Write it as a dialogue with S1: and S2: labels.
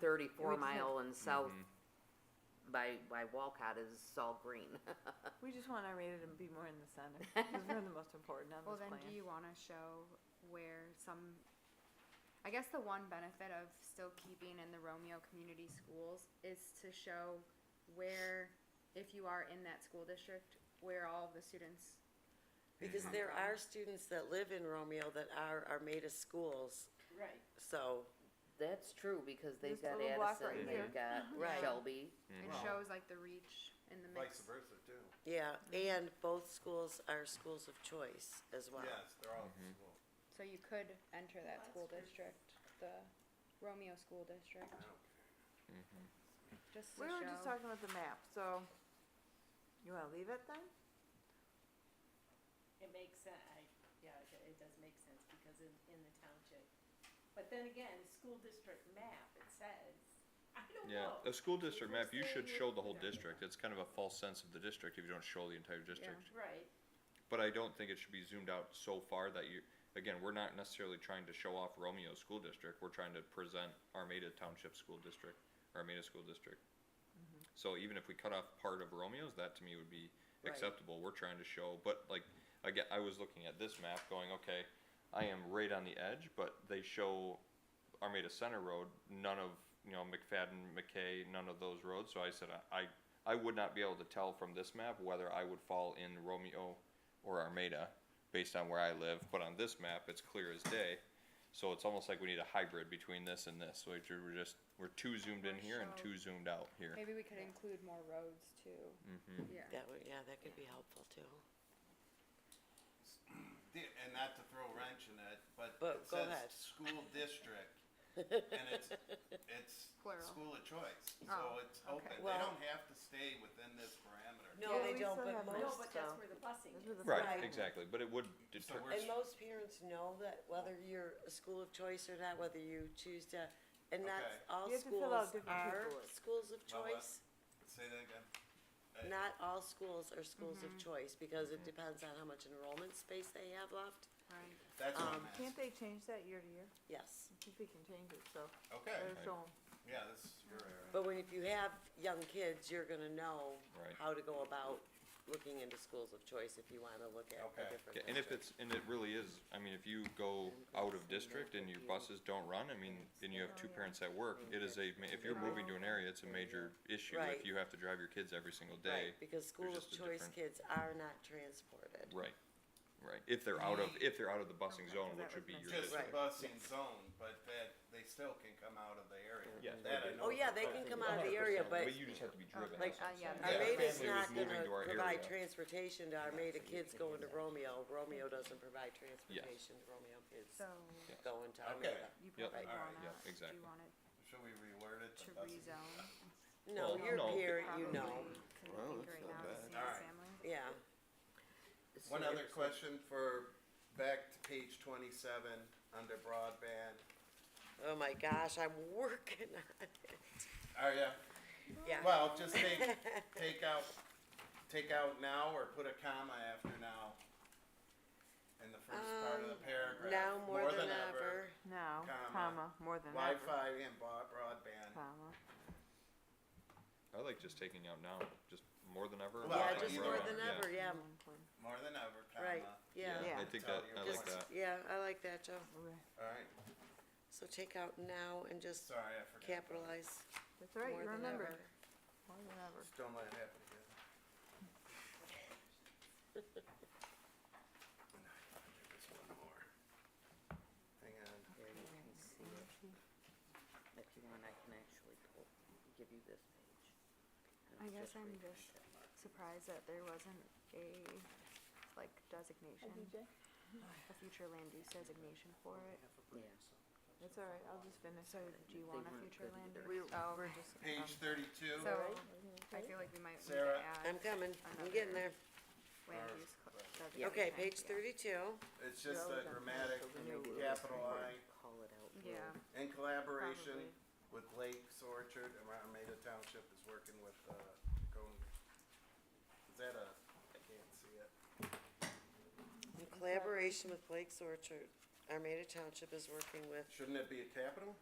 S1: thirty-four
S2: We just have-
S1: mile and south
S3: Mm-hmm.
S1: by, by Walcott is all green.
S2: We just want our radar to be more in the center, because we're the most important on
S4: Well,
S2: this
S4: then
S2: plan.
S4: do you wanna show where some, I guess the one benefit of still keeping in the Romeo Community Schools is to show where, if you are in that school district, where all the students,
S5: Because
S3: Mm-hmm.
S5: there are students that live in Romeo that are Armada schools,
S4: Right.
S5: so,
S1: That's true, because they've
S2: This
S1: got
S2: little block right
S1: Addison, they've got
S5: Right.
S1: Shelby.
S4: It
S3: Mm. Well-
S4: shows like the reach in the
S3: Vice
S4: mix.
S3: versa too.
S5: yeah,
S3: Mm-hmm.
S5: and both schools are schools of choice as well.
S3: Yes, they're all school.
S4: So you could enter that school district, the Romeo School District,
S3: I don't care.
S4: just to
S2: We were just
S4: show.
S2: talking about the map, so you wanna leave it then?
S6: It makes sense, I, yeah, it, it does make sense because in, in the township. But then again, school district map, it says, I don't
S7: Yeah,
S6: know.
S7: a school district
S6: If we're
S7: map, you should
S6: saying
S7: show
S6: it-
S7: the whole district, it's kind of a false sense of the district if you don't show the entire district.
S6: Right,
S7: But I don't think it should be zoomed out so far that you, again, we're not necessarily trying to show off Romeo School District, we're trying to present Armada Township School District, Armada School District. So even if we cut off part of Romeo's, that to me would be
S5: Right.
S7: acceptable, we're trying to show, but like, again, I was looking at this map going, okay, I am right on the edge, but they show Armada Center Road, none of, you know, McFadden, McKay, none of those roads, so I said, uh, I, I- I would not be able to tell from this map whether I would fall in Romeo or Armada, based on where I live, but on this map, it's clear as day. So it's almost like we need a hybrid between this and this, so if you we're just, we're too zoomed in here and
S4: Show.
S7: too zoomed out here.
S4: Maybe we could include more roads too,
S7: Mhm.
S3: Mm-hmm.
S4: yeah.
S5: That would, yeah, that could be helpful too.
S3: The- And not to throw a wrench in it, but
S5: But
S3: it
S5: go
S3: says
S5: ahead.
S3: school district. And it's, it's
S4: Plural.
S3: school of choice,
S4: Oh,
S3: so it's open. They
S5: Well-
S3: don't have to stay within this parameter.
S5: No,
S2: Yeah,
S5: they
S2: we
S5: don't,
S2: still
S5: but
S2: have
S6: no,
S2: Most,
S5: most,
S6: but that's
S2: though.
S6: where the busing
S2: Those were
S6: is.
S2: the
S7: Right,
S5: Right.
S7: exactly, but it would deter,
S3: we're-
S5: and most parents know that whether you're a school of choice or not, whether you choose to, and not
S3: Okay.
S5: all
S2: You have to fill out
S5: schools
S2: different
S5: are
S2: paperwork.
S5: schools of
S3: Well, uh, what-
S5: choice.
S3: Say that again. Uh,
S5: Not all schools are schools of
S2: Mm-hmm.
S5: choice, because it
S3: Mm-hmm.
S5: depends on how much enrollment space they have left,
S4: Right.
S3: That's
S5: Um,
S3: what I'm
S2: Can't
S3: asking.
S2: they change that year to year?
S5: yes.
S2: I think we can change it, so
S3: Okay,
S2: let us show 'em.
S3: yeah, this is your area.
S5: But when, if you have young kids, you're gonna know
S7: Right.
S5: how to go about looking into schools of choice if you wanna look at
S3: Okay.
S5: a different.
S7: Yeah, and if
S5: district.
S7: it's, and it really is, I mean, if you go out of district and your buses don't run, I mean, and you have two parents at work, it is a, ma- if you're moving to an area, it's a major issue
S5: Right.
S7: if you have to drive your kids every single day.
S5: Right, because school
S7: there's
S5: of
S7: just a
S5: choice
S7: different-
S5: kids are not transported.
S7: Right, right, if they're out of, if they're out of the busing zone, which would be your
S3: Just
S7: district.
S3: the
S5: Right.
S3: busing zone, but that, they still can come out of the area.
S7: Yes,
S3: That I
S7: but-
S3: know
S5: Oh, yeah,
S3: for a
S5: they
S3: fact.
S5: can come out of the area, but
S7: But you just have to be driven,
S2: like,
S7: that's what
S2: uh,
S7: I'm
S2: yeah,
S7: saying.
S3: Yeah,
S5: Armada's
S7: family was
S5: not
S7: moving
S5: gonna
S7: to our
S5: provide
S7: area.
S5: transportation to Armada kids going to Romeo, Romeo doesn't provide transportation to Romeo kids
S4: So
S5: going to
S3: Okay.
S5: Armada.
S4: you
S7: Yep.
S4: probably
S3: All right,
S4: wanna,
S7: yeah,
S4: do
S7: exactly.
S4: you want it
S3: Should we reword it? to
S4: to
S3: busing?
S4: rezone?
S5: No,
S7: Well,
S5: your
S7: no.
S5: parent, you know,
S4: Probably, 'cause I
S8: Well,
S4: think
S8: that's
S4: right
S8: not
S4: now
S8: bad.
S4: it's
S3: All right.
S4: single-family.
S5: yeah,
S3: One
S1: So-
S3: other question for, back to page twenty-seven, under broadband.
S5: oh my gosh, I'm working on it,
S3: Are ya?
S5: yeah.
S3: Well, just take, take out, take out now or put a comma after now in the first part of the
S5: Um,
S3: paragraph.
S5: Now more than ever,
S2: Now,
S3: Comma,
S2: comma, more than ever,
S3: Wi-Fi and broad- broadband.
S2: comma.
S7: I like just taking out now, just more than ever.
S3: Well, uh,
S5: yeah,
S7: like
S5: just
S7: we're
S5: more
S7: on,
S5: than
S7: yeah.
S5: ever, yeah,
S2: one point.
S3: More than ever,
S5: right,
S3: comma.
S5: yeah,
S2: Yeah.
S7: I think that, I like
S5: just,
S7: that,
S5: yeah, I like that, Joe,
S2: Okay.
S3: All right,
S5: so take out now and just
S3: sorry, I forgot.
S5: capitalize
S2: That's all
S5: more
S2: right, you
S5: than ever.
S2: remembered, more than ever.
S3: Just don't let it happen again. And I thought there was one more. Hang on.
S1: There you can see it. If you want, I can actually pull, give you this page. And
S4: I
S1: I'll
S4: guess I'm
S1: reprint
S4: just
S1: it.
S4: surprised that there wasn't a, like, designation, a future land use designation for it.
S1: Yeah.
S2: That's all right, I'll just finish.
S4: So do you
S1: They
S4: want a
S1: weren't
S4: future
S1: good
S4: land
S1: either.
S4: use? Oh, Um,
S3: Page thirty-two.
S4: so I feel like we might need to
S3: Sarah?
S5: I'm
S4: add
S5: coming, I'm getting there,
S4: land
S3: Or-
S4: use cl-
S1: Yeah.
S5: okay,
S4: designation,
S5: page
S4: yeah.
S5: thirty-two.
S3: It's just
S2: Yeah, we
S3: a
S2: don't
S3: grammatic
S1: So then maybe we'll just
S3: capital
S1: record
S3: I
S1: and Call it out.
S4: Yeah,
S1: later.
S3: in collaboration
S2: Probably.
S3: with Lakes Orchard, and Armada Township is working with, uh, going, is that a, I can't see it.
S5: In collaboration with Blake's Orchard, Armada Township is working with,
S3: Shouldn't it be a capital?